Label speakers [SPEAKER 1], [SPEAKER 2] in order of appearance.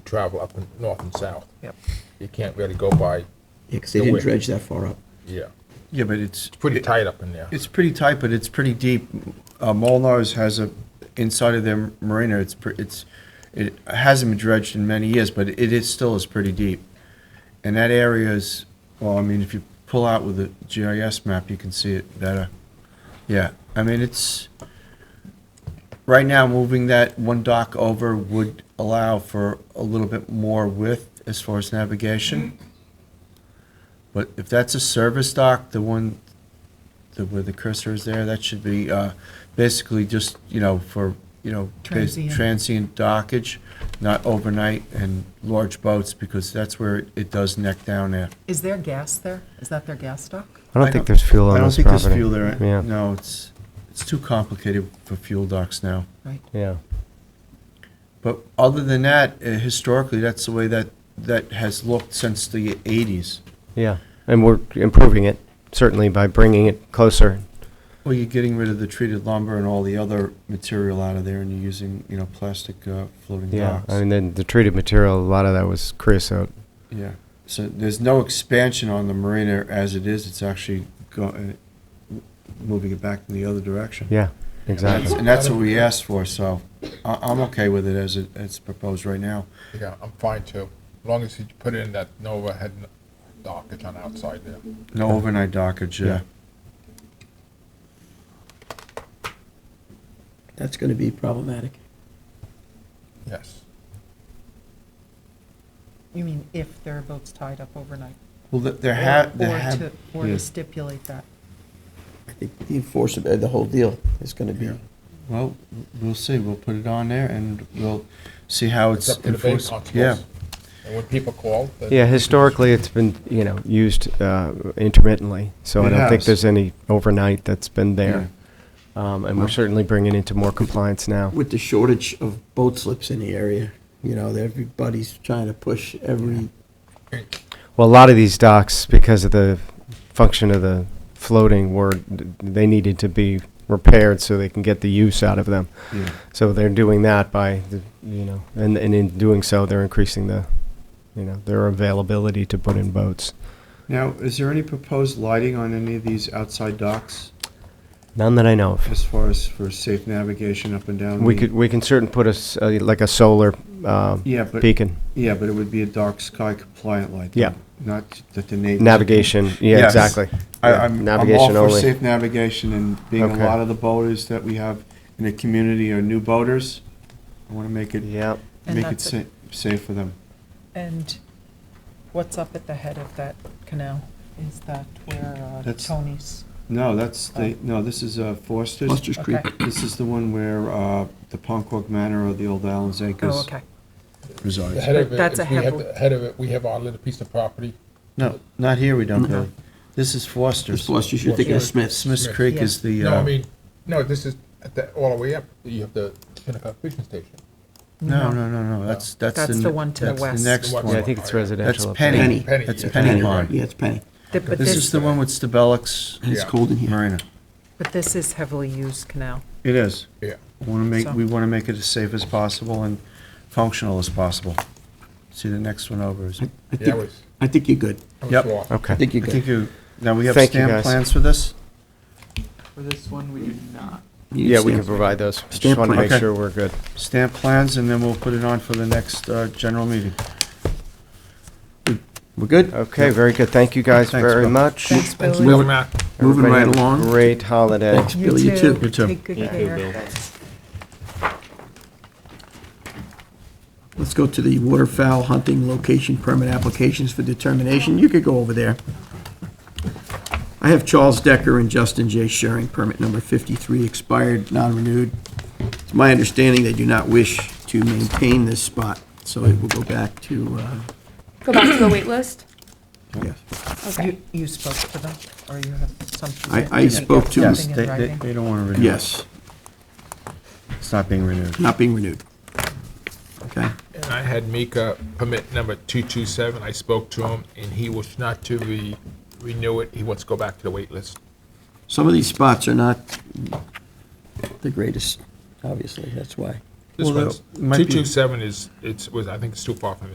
[SPEAKER 1] travel up and north and south.
[SPEAKER 2] Yep.
[SPEAKER 1] You can't really go by,
[SPEAKER 3] because they
[SPEAKER 1] The
[SPEAKER 3] didn't
[SPEAKER 1] width.
[SPEAKER 3] dredge that far up.
[SPEAKER 1] yeah,
[SPEAKER 4] Yeah, but it's.
[SPEAKER 1] it's pretty
[SPEAKER 4] it-
[SPEAKER 1] tight up in there.
[SPEAKER 4] It's pretty tight, but it's pretty deep. Uh, Molnar's has a, inside of their marina, it's, pre- it's, it hasn't been dredged in many years, but it is, still is pretty deep. And that area is, well, I mean, if you pull out with the GIS map, you can see it better. Yeah, I mean, it's, right now, moving that one dock over would allow for a little bit more width as far as navigation. But if that's a service dock, the one the, where the cursor is there, that should be, uh, basically just, you know, for, you know, bas-
[SPEAKER 2] Transient.
[SPEAKER 4] transient dockage, not overnight and large boats, because that's where it- it does neck down there.
[SPEAKER 2] Is there gas there? Is that their gas dock?
[SPEAKER 5] I don't think there's fuel
[SPEAKER 4] I
[SPEAKER 5] on
[SPEAKER 4] don't
[SPEAKER 5] this
[SPEAKER 4] think
[SPEAKER 5] property.
[SPEAKER 4] there's fuel there.
[SPEAKER 5] Yeah,
[SPEAKER 4] No, it's, it's too complicated for fuel docks now.
[SPEAKER 2] Right.
[SPEAKER 5] yeah.
[SPEAKER 4] But other than that, uh, historically, that's the way that, that has looked since the eighties.
[SPEAKER 5] Yeah, and we're improving it, certainly by bringing it closer.
[SPEAKER 4] Well, you're getting rid of the treated lumber and all the other material out of there, and you're using, you know, plastic uh, floating
[SPEAKER 5] Yeah,
[SPEAKER 4] docks.
[SPEAKER 5] I mean, then the treated material, a lot of that was creosote.
[SPEAKER 4] Yeah, so there's no expansion on the marina as it is, it's actually go, uh, moving it back in the other direction.
[SPEAKER 5] Yeah,
[SPEAKER 4] And that's-
[SPEAKER 5] exactly.
[SPEAKER 4] And that's what we asked for, so I, I'm okay with it as it, it's proposed right now.
[SPEAKER 1] Yeah, I'm fine too, as long as you put in that no overhead dock, it's on the outside there.
[SPEAKER 4] No overnight dockage, yeah.
[SPEAKER 3] That's going to be problematic.
[SPEAKER 1] Yes.
[SPEAKER 2] You mean if there are boats tied up overnight?
[SPEAKER 4] Well, th- there
[SPEAKER 2] Or-
[SPEAKER 4] have,
[SPEAKER 2] or
[SPEAKER 4] there have.
[SPEAKER 2] to- Or
[SPEAKER 4] yeah.
[SPEAKER 2] to stipulate that.
[SPEAKER 3] I think the enforcement, uh, the whole deal is going to be.
[SPEAKER 4] Yeah. Well, we'll see, we'll put it on there and we'll see how
[SPEAKER 1] It's
[SPEAKER 4] it's
[SPEAKER 1] up to the bay
[SPEAKER 4] enforced.
[SPEAKER 1] constables.
[SPEAKER 4] Yeah,
[SPEAKER 1] And when people call. then-
[SPEAKER 5] Yeah, historically, it's been, you know, used uh, intermittently, so I
[SPEAKER 4] It
[SPEAKER 5] don't think
[SPEAKER 4] has.
[SPEAKER 5] there's any overnight that's been there. Um, And we're certainly bringing into more compliance now.
[SPEAKER 3] With the shortage of boat slips in the area, you know, that everybody's trying to push every,
[SPEAKER 5] Well, a lot of these docks, because of the function of the floating were, they needed to be repaired so they can get the use out of them.
[SPEAKER 4] yeah.
[SPEAKER 5] So they're doing that by, the- you know, and, and in doing so, they're increasing the, you know, their availability to put in boats.
[SPEAKER 4] Now, is there any proposed lighting on any of these outside docks
[SPEAKER 5] None that I know of.
[SPEAKER 4] as far as for safe navigation up and down?
[SPEAKER 5] We
[SPEAKER 4] the-
[SPEAKER 5] could, we can certain put a, s- uh, like a solar uh,
[SPEAKER 4] Yeah, but.
[SPEAKER 5] beacon,
[SPEAKER 4] Yeah, but it would be a dark sky compliant light.
[SPEAKER 5] Yeah.
[SPEAKER 4] Not that the neighbors.
[SPEAKER 5] navigation, yeah,
[SPEAKER 4] Yes.
[SPEAKER 5] exactly.
[SPEAKER 4] I,
[SPEAKER 5] Yeah,
[SPEAKER 4] I'm, I'm all
[SPEAKER 5] navigation
[SPEAKER 4] for
[SPEAKER 5] only.
[SPEAKER 4] safe navigation and being a
[SPEAKER 5] Okay.
[SPEAKER 4] lot of the boaters that we have in the community are new boaters. I want to make it,
[SPEAKER 5] Yeah,
[SPEAKER 2] And
[SPEAKER 4] make it
[SPEAKER 2] that's
[SPEAKER 4] sa- safe for them.
[SPEAKER 2] And what's up at the head of that canal? Is that where uh,
[SPEAKER 4] That's-
[SPEAKER 2] Tony's?
[SPEAKER 4] No, that's the, no, this is uh, Foster's.
[SPEAKER 3] Buster's Creek.
[SPEAKER 2] Okay.
[SPEAKER 4] This is the one where, uh, the Poncork Manor or the Old Allen's
[SPEAKER 2] Oh,
[SPEAKER 4] Acres
[SPEAKER 2] okay.
[SPEAKER 1] The
[SPEAKER 4] resides.
[SPEAKER 1] head of it,
[SPEAKER 2] That's a
[SPEAKER 1] if we have
[SPEAKER 2] heavy-
[SPEAKER 1] the head of it, we have our little piece of property,
[SPEAKER 4] No, not here we don't, Billy. This is Foster's.
[SPEAKER 3] It's Foster's, you're thinking of Smith's.
[SPEAKER 4] Smith's Creek
[SPEAKER 2] Yeah.
[SPEAKER 4] is the,
[SPEAKER 1] No, I
[SPEAKER 4] uh,
[SPEAKER 1] mean, no, this is at the, all the way up. You have the Kennecott Fishing Station.
[SPEAKER 4] no, no, no, no, that's, that's.
[SPEAKER 2] That's the one to the
[SPEAKER 4] that's
[SPEAKER 2] west.
[SPEAKER 4] next
[SPEAKER 1] The one-
[SPEAKER 4] one.
[SPEAKER 5] yeah, I think it's
[SPEAKER 4] That's
[SPEAKER 5] residential. up there.
[SPEAKER 4] Penny.
[SPEAKER 1] Penny,
[SPEAKER 4] That's
[SPEAKER 1] yeah.
[SPEAKER 4] Penny Pond.
[SPEAKER 3] Yeah, it's Penny.
[SPEAKER 2] Th- But
[SPEAKER 4] This is
[SPEAKER 2] this,
[SPEAKER 4] the one with Stabelecs
[SPEAKER 3] And It's
[SPEAKER 1] Yeah.
[SPEAKER 3] cold in here.
[SPEAKER 4] Marina.
[SPEAKER 2] but this is heavily used canal.
[SPEAKER 4] It is.
[SPEAKER 1] Yeah.
[SPEAKER 4] We want to make,
[SPEAKER 2] So-
[SPEAKER 4] we want to make it as safe as possible and functional as possible. See, the next one over is.
[SPEAKER 3] I I
[SPEAKER 1] Yeah, I
[SPEAKER 3] think,
[SPEAKER 1] was,
[SPEAKER 3] I think you're good.
[SPEAKER 1] I
[SPEAKER 4] Yep.
[SPEAKER 1] was lost.
[SPEAKER 3] I
[SPEAKER 5] Okay.
[SPEAKER 3] think
[SPEAKER 4] I
[SPEAKER 3] you're
[SPEAKER 4] think
[SPEAKER 3] good.
[SPEAKER 4] you, now we have
[SPEAKER 5] Thank you,
[SPEAKER 4] stamp
[SPEAKER 5] guys.
[SPEAKER 4] plans for this?
[SPEAKER 6] For this one, we do not.
[SPEAKER 3] You
[SPEAKER 5] Yeah, we
[SPEAKER 3] stand.
[SPEAKER 5] can provide those. Just
[SPEAKER 3] Stamp
[SPEAKER 5] want to
[SPEAKER 3] plan.
[SPEAKER 5] make
[SPEAKER 4] Okay.
[SPEAKER 5] sure we're good.
[SPEAKER 4] Stamp plans, and then we'll put it on for the next uh, general meeting. We're good?
[SPEAKER 5] Okay, very good. Thank you guys
[SPEAKER 4] Thanks,
[SPEAKER 5] very
[SPEAKER 4] Bill.
[SPEAKER 5] much.
[SPEAKER 2] Thanks,
[SPEAKER 3] Thanks,
[SPEAKER 2] Billy.
[SPEAKER 3] Bill. Moving
[SPEAKER 5] Everybody
[SPEAKER 3] right
[SPEAKER 5] have a
[SPEAKER 3] along.
[SPEAKER 5] Great holiday.
[SPEAKER 3] Thanks, Billy, you too.
[SPEAKER 4] You too.
[SPEAKER 2] Take good care.
[SPEAKER 3] Let's go to the waterfowl hunting location permit applications for determination. You could go over there. I have Charles Decker and Justin J. Sharing, permit number 53, expired, non-renewed. It's my understanding they do not wish to maintain this spot, so it will go back to, uh,
[SPEAKER 7] Go back to the wait list?
[SPEAKER 3] yes.
[SPEAKER 7] Okay.
[SPEAKER 2] You- You spoke to them, or you have something?
[SPEAKER 3] I-
[SPEAKER 2] you
[SPEAKER 3] I
[SPEAKER 2] need
[SPEAKER 3] spoke to-
[SPEAKER 4] Yes,
[SPEAKER 2] something in
[SPEAKER 4] they, they
[SPEAKER 2] writing?
[SPEAKER 4] they don't want to renew. it.
[SPEAKER 3] yes,
[SPEAKER 4] It's not being renewed.
[SPEAKER 3] not being renewed. Okay?
[SPEAKER 1] And I had Mika permit number 227. I spoke to him, and he was not to re- renew it. He wants to go back to the wait list.
[SPEAKER 3] Some of these spots are not the greatest, obviously, that's why.
[SPEAKER 1] This
[SPEAKER 4] Well,
[SPEAKER 1] one's,
[SPEAKER 4] it might be-
[SPEAKER 1] 227 is, it's, was, I think it's too far from